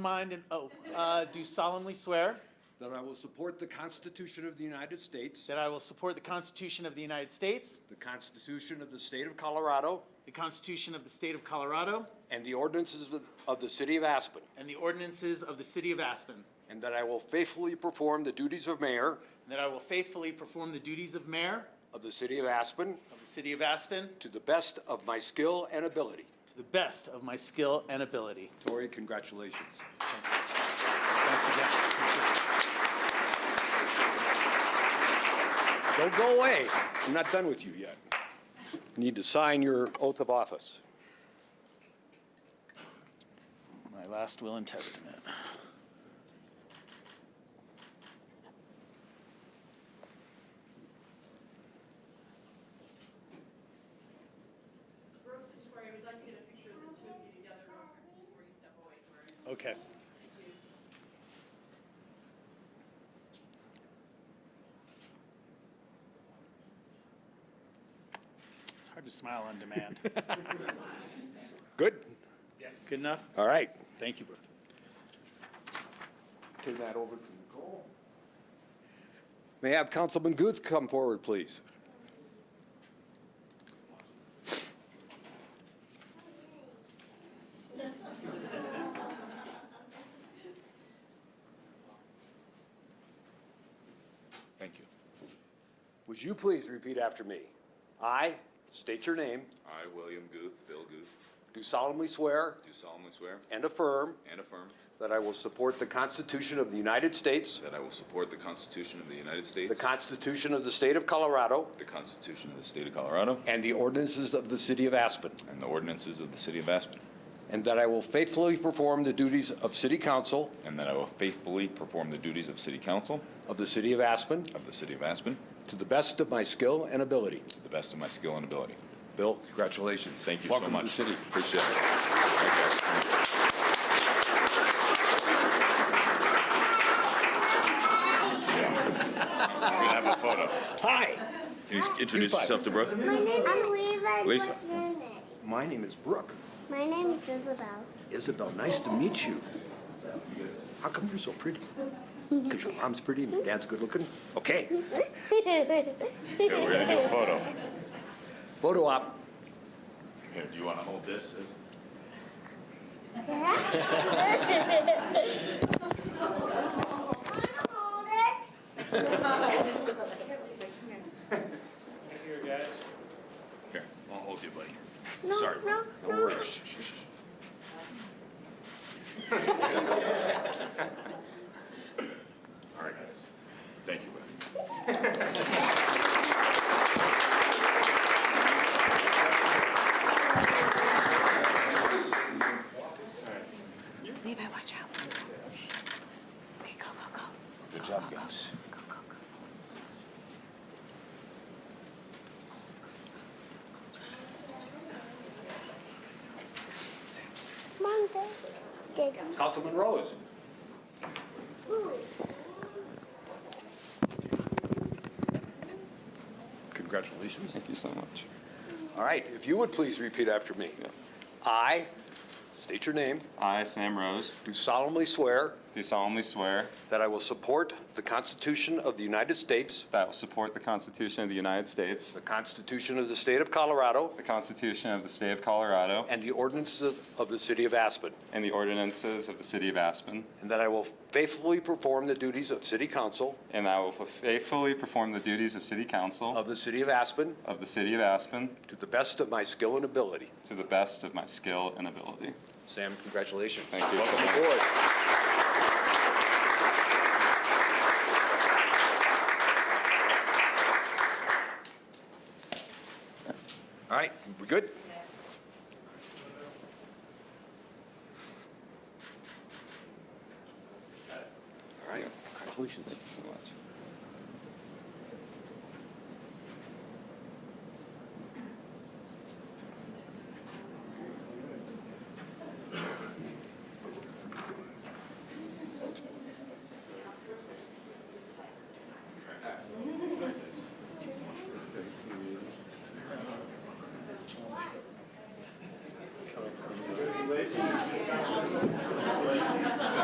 mind and, oh, uh, do solemnly swear that I will support the Constitution of the United States, that I will support the Constitution of the United States, the Constitution of the State of Colorado, the Constitution of the State of Colorado, and the ordinances of- of the City of Aspen, and the ordinances of the City of Aspen, and and that I will faithfully perform the duties of mayor that I will faithfully perform the duties of mayor of the City of Aspen of the City of Aspen to the best of my skill and ability. to the best of my skill and ability. Tori, congratulations. Thanks again. Don't go away. I'm not done with you yet. You Need to sign your oath of office. My last will and testament. Brooks and Tori, we'd like to get a picture of the two of you together real quick before you step away, Tori. Okay. Thank you. It's hard to smile on demand. Good? Good enough? All right. Thank you, Brooke. Turn that over to Nicole. May I have Councilman Guth come forward, please? Thank you. Would you please repeat after me? I, state your name, I, William Guth, Bill Guth, do solemnly swear do solemnly swear and affirm and affirm that I will support the Constitution of the United States, that I will support the Constitution of the United States, the Constitution of the State of Colorado, the Constitution of the State of Colorado, and the ordinances of the City of Aspen, and the ordinances of the City of Aspen, and that I will faithfully perform the duties of City Council and that I will faithfully perform the duties of City Council of the City of Aspen of the City of Aspen to the best of my skill and ability. to the best of my skill and ability. Bill, congratulations. Thank you so much. Welcome to the city. Appreciate it. Thank you guys. We have a photo. Hi, Can you introduce yourself to Brooke? My name I'm Levi. Lisa. What's your name? my name is Brooke. My name is Isabel. Isabel, nice to meet you. How come you're so pretty? Because your mom's pretty and your dad's good looking? Okay. Yeah, we're gonna do a photo. Photo op. Here, do you want to hold this? Hold it. Here, I'll hold you, buddy. No, Sorry. No, No no. worries. Shh, shh, shh. All right, guys. Thank you, buddy. Levi, watch out. Okay, go, go, go. Good job, guys. Go, go, go. Mom, Daddy. Councilman Rose. Congratulations. Thank you so much. All right, if you would please repeat after me. I, state your name, I, Sam Rose, do solemnly swear do solemnly swear that I will support the Constitution of the United States, that I will support the Constitution of the United States, the Constitution of the State of Colorado, the Constitution of the State of Colorado, and the ordinances of the City of Aspen, and the ordinances of the City of Aspen, and that I will faithfully perform the duties of City Council and I will faithfully perform the duties of City Council of the City of Aspen of the City of Aspen to the best of my skill and ability. to the best of my skill and ability. Sam, congratulations. Thank you. Welcome aboard. All right, we good? All right, congratulations. Thank you so much.